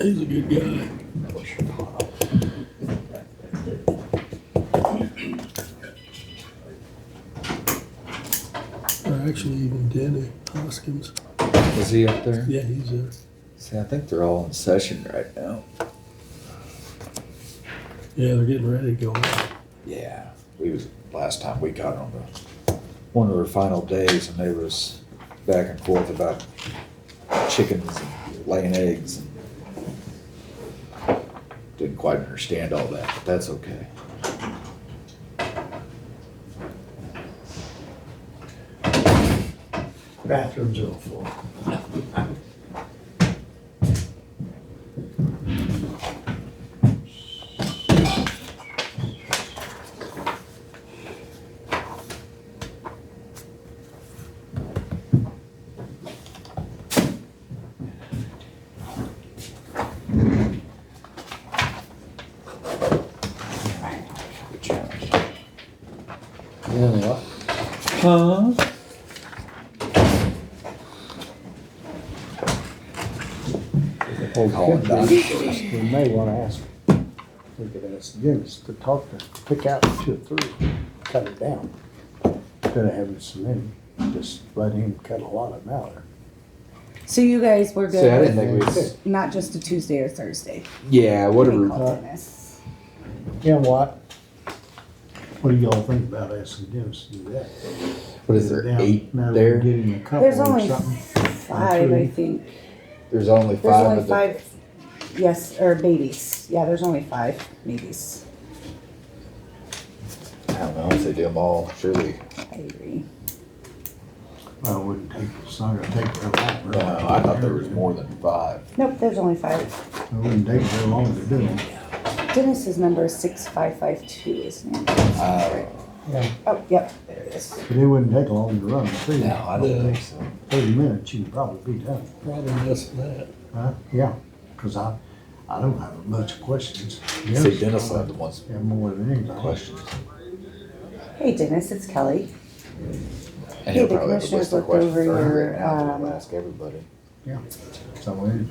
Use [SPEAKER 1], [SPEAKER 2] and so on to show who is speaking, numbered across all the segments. [SPEAKER 1] He's a good guy. Or actually even Danny Hoskins.
[SPEAKER 2] Is he up there?
[SPEAKER 1] Yeah, he's uh, there.
[SPEAKER 2] See, I think they're all in session right now.
[SPEAKER 1] Yeah, they're getting ready to go.
[SPEAKER 2] Yeah, we was, last time we got on the, one of our final days and they was back and forth about chickens and laying eggs. and Didn't quite understand all that, but that's okay.
[SPEAKER 3] Bathrooms are full.
[SPEAKER 2] Good challenge. Yeah. Huh? Call it
[SPEAKER 4] Could
[SPEAKER 2] done.
[SPEAKER 4] be. We may wanna ask, we could ask Dennis to talk to, pick out two or three, cut it down. Instead of having so many, just let him cut a lot of them out.
[SPEAKER 5] So you guys were
[SPEAKER 2] See, I
[SPEAKER 5] good
[SPEAKER 2] didn't
[SPEAKER 5] with
[SPEAKER 2] think we,
[SPEAKER 5] not just a Tuesday or Thursday.
[SPEAKER 2] yeah,
[SPEAKER 5] We
[SPEAKER 2] whatever.
[SPEAKER 5] called Dennis.
[SPEAKER 4] You know what? What do y'all think about asking Dennis to do that?
[SPEAKER 2] What is there,
[SPEAKER 4] Down-
[SPEAKER 2] eight
[SPEAKER 4] now
[SPEAKER 2] there?
[SPEAKER 4] Get him a couple
[SPEAKER 5] There's
[SPEAKER 4] or
[SPEAKER 5] only
[SPEAKER 4] something.
[SPEAKER 5] five, I
[SPEAKER 4] Three.
[SPEAKER 5] think.
[SPEAKER 2] There's only
[SPEAKER 5] There's
[SPEAKER 2] five
[SPEAKER 5] only
[SPEAKER 2] of the,
[SPEAKER 5] five, yes, or babies. Yeah, there's only five babies.
[SPEAKER 2] I don't know if they do them all, surely.
[SPEAKER 5] I agree.
[SPEAKER 4] I wouldn't take, it's not gonna take very long.
[SPEAKER 2] No, I thought there was more than five.
[SPEAKER 5] Nope, there's only five.
[SPEAKER 4] It wouldn't take very long to do them.
[SPEAKER 5] Dennis's number is six five five two, isn't it?
[SPEAKER 2] Uh,
[SPEAKER 5] Oh, yep, there it is.
[SPEAKER 4] But it wouldn't take long to run, too.
[SPEAKER 2] no, I don't think so.
[SPEAKER 4] Thirty minutes, you can probably be done,
[SPEAKER 1] Probably less than that.
[SPEAKER 4] right? Yeah, cause I, I don't have much questions.
[SPEAKER 2] See, Dennis had the ones,
[SPEAKER 4] Yeah, more than anything.
[SPEAKER 2] questions.
[SPEAKER 5] Hey Dennis, it's Kelly.
[SPEAKER 2] And he'll
[SPEAKER 5] Hey, the
[SPEAKER 2] probably have a list
[SPEAKER 5] commissioners
[SPEAKER 2] of
[SPEAKER 5] looked
[SPEAKER 2] questions
[SPEAKER 5] over
[SPEAKER 2] for her
[SPEAKER 5] your,
[SPEAKER 2] right now,
[SPEAKER 5] um,
[SPEAKER 2] to ask everybody.
[SPEAKER 4] So it,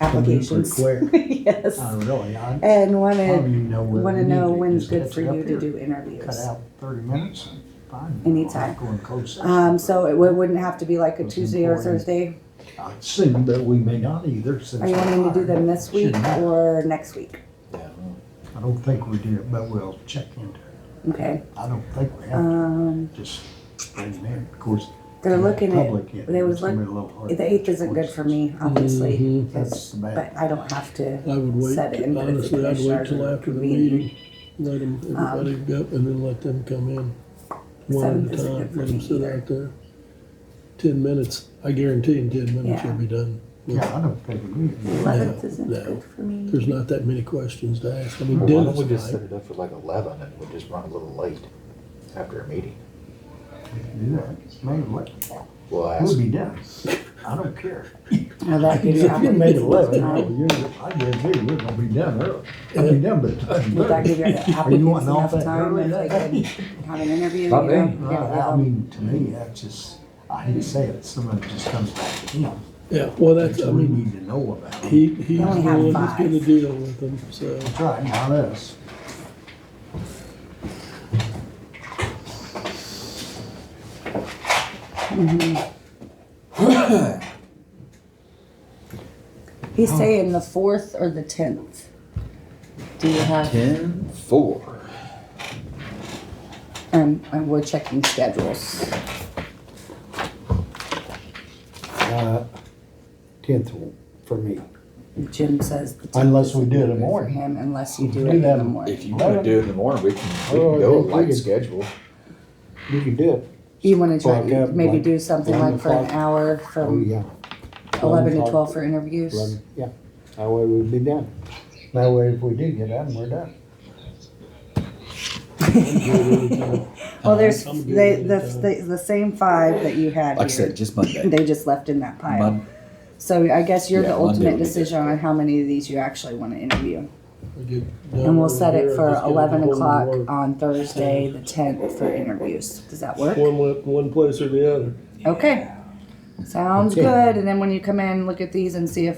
[SPEAKER 5] Applications.
[SPEAKER 4] Pretty
[SPEAKER 5] Yes.
[SPEAKER 4] I really, Um, I
[SPEAKER 5] And
[SPEAKER 4] don't
[SPEAKER 5] wanted,
[SPEAKER 4] even know where.
[SPEAKER 5] wanna know when's
[SPEAKER 4] Just
[SPEAKER 5] good
[SPEAKER 4] catch
[SPEAKER 5] for
[SPEAKER 4] it up
[SPEAKER 5] you to
[SPEAKER 4] here.
[SPEAKER 5] do
[SPEAKER 4] Cut
[SPEAKER 5] interviews.
[SPEAKER 4] out thirty minutes and fine.
[SPEAKER 5] Anytime.
[SPEAKER 4] Going close.
[SPEAKER 5] Um, so it wou- wouldn't have to be like a
[SPEAKER 4] It's
[SPEAKER 5] Tuesday or
[SPEAKER 4] important.
[SPEAKER 5] Thursday.
[SPEAKER 4] I'd assume that we may not either since.
[SPEAKER 5] Are you wanting to do them this week
[SPEAKER 4] Shouldn't matter.
[SPEAKER 5] or next week?
[SPEAKER 2] Yeah.
[SPEAKER 4] I don't think we did, but we'll check into it.
[SPEAKER 5] Okay,
[SPEAKER 4] I don't think we have,
[SPEAKER 5] um,
[SPEAKER 4] to just, bring them in. of course.
[SPEAKER 5] they're looking at,
[SPEAKER 4] public, yeah,
[SPEAKER 5] they was
[SPEAKER 4] it's gonna be a little hard.
[SPEAKER 5] the eighth isn't good for me, obviously,
[SPEAKER 1] Mhm.
[SPEAKER 4] That's the bad.
[SPEAKER 5] but I don't have to.
[SPEAKER 1] I would wait,
[SPEAKER 5] Set it in, but if the
[SPEAKER 1] honestly, I'd wait
[SPEAKER 5] commissioners
[SPEAKER 1] till
[SPEAKER 5] are
[SPEAKER 1] after the
[SPEAKER 5] convening.
[SPEAKER 1] meeting. Let them, everybody
[SPEAKER 5] Um,
[SPEAKER 1] go, and then let them come in. One
[SPEAKER 5] Seventh
[SPEAKER 1] at a
[SPEAKER 5] isn't
[SPEAKER 1] time,
[SPEAKER 5] good for
[SPEAKER 1] let them
[SPEAKER 5] me
[SPEAKER 1] sit
[SPEAKER 5] either.
[SPEAKER 1] out there. Ten minutes, I guarantee in ten minutes
[SPEAKER 5] Yeah.
[SPEAKER 1] you'll be done. with-
[SPEAKER 4] Yeah, I don't think we need. to.
[SPEAKER 5] Eleventh
[SPEAKER 1] No,
[SPEAKER 5] isn't
[SPEAKER 1] no.
[SPEAKER 5] good for me.
[SPEAKER 1] There's not that many questions to ask. I mean,
[SPEAKER 2] Why don't we
[SPEAKER 1] Dennis
[SPEAKER 2] just set
[SPEAKER 1] and
[SPEAKER 2] it up for like eleven and we'll just run a little late after a meeting?
[SPEAKER 4] do that. Maybe what,
[SPEAKER 2] We'll
[SPEAKER 4] we'll
[SPEAKER 2] ask,
[SPEAKER 4] be done. I don't care.
[SPEAKER 5] Now that gives you
[SPEAKER 1] If you
[SPEAKER 4] Made
[SPEAKER 5] applications
[SPEAKER 4] eleven, I
[SPEAKER 5] time.
[SPEAKER 4] guarantee we're gonna be done early. I'll be done by the time.
[SPEAKER 5] Would that give your
[SPEAKER 4] Are you
[SPEAKER 5] applicants
[SPEAKER 4] wanting off
[SPEAKER 5] enough
[SPEAKER 4] that
[SPEAKER 5] time
[SPEAKER 4] early?
[SPEAKER 5] if they could have an interview? you
[SPEAKER 2] Not me.
[SPEAKER 5] know, get it
[SPEAKER 4] I
[SPEAKER 5] out?
[SPEAKER 4] mean, to me, that's just, I hate to say it, someone just comes back to him.
[SPEAKER 1] Yeah, well, that's, I
[SPEAKER 4] That we
[SPEAKER 1] mean,
[SPEAKER 4] need to know about. him.
[SPEAKER 1] he, he's the
[SPEAKER 5] only have
[SPEAKER 1] one that's
[SPEAKER 5] five.
[SPEAKER 1] gonna deal with them, so.
[SPEAKER 4] That's right, not us.
[SPEAKER 5] He's saying the fourth or the tenth. Do you have,
[SPEAKER 2] ten, four.
[SPEAKER 5] um, and we're checking schedules.
[SPEAKER 4] uh, Tenth for me.
[SPEAKER 5] Jim says the tenth
[SPEAKER 4] Unless we do it in the
[SPEAKER 5] isn't good for
[SPEAKER 4] morning.
[SPEAKER 5] him unless you do
[SPEAKER 4] Do
[SPEAKER 5] it in
[SPEAKER 4] that
[SPEAKER 5] the
[SPEAKER 2] If
[SPEAKER 5] morning.
[SPEAKER 2] you wanna do it in the morning, we can, we
[SPEAKER 4] Oh,
[SPEAKER 2] can
[SPEAKER 4] I
[SPEAKER 2] go
[SPEAKER 4] think we
[SPEAKER 2] light
[SPEAKER 4] could-
[SPEAKER 2] schedule.
[SPEAKER 4] You can do it.
[SPEAKER 5] You wanna try,
[SPEAKER 4] Like, uh,
[SPEAKER 5] maybe
[SPEAKER 4] like
[SPEAKER 5] do something like for an
[SPEAKER 4] 11 o'clock.
[SPEAKER 5] hour
[SPEAKER 4] Oh,
[SPEAKER 5] from
[SPEAKER 4] yeah.
[SPEAKER 5] eleven to
[SPEAKER 4] 11
[SPEAKER 5] twelve for interviews?
[SPEAKER 4] Yeah, that way we'd be done. That way if we do get done, we're done.
[SPEAKER 5] Well, there's,
[SPEAKER 1] I'm good
[SPEAKER 5] they,
[SPEAKER 1] with
[SPEAKER 5] the,
[SPEAKER 1] that.
[SPEAKER 5] the, the same five that you had
[SPEAKER 2] Like I
[SPEAKER 5] here,
[SPEAKER 2] said, just Monday.
[SPEAKER 5] they just left in that pile.
[SPEAKER 2] Mon-
[SPEAKER 5] So I guess you're the
[SPEAKER 2] Yeah, Monday
[SPEAKER 5] ultimate
[SPEAKER 2] would be
[SPEAKER 5] decision on how many of these you actually wanna interview.
[SPEAKER 1] And
[SPEAKER 5] And we'll set it for eleven o'clock on Thursday, the tenth, for interviews. Does that work?
[SPEAKER 1] One, wa- one place or the other.
[SPEAKER 5] Okay. Sounds
[SPEAKER 4] Okay.
[SPEAKER 5] good. And then when you come in, look at these and see if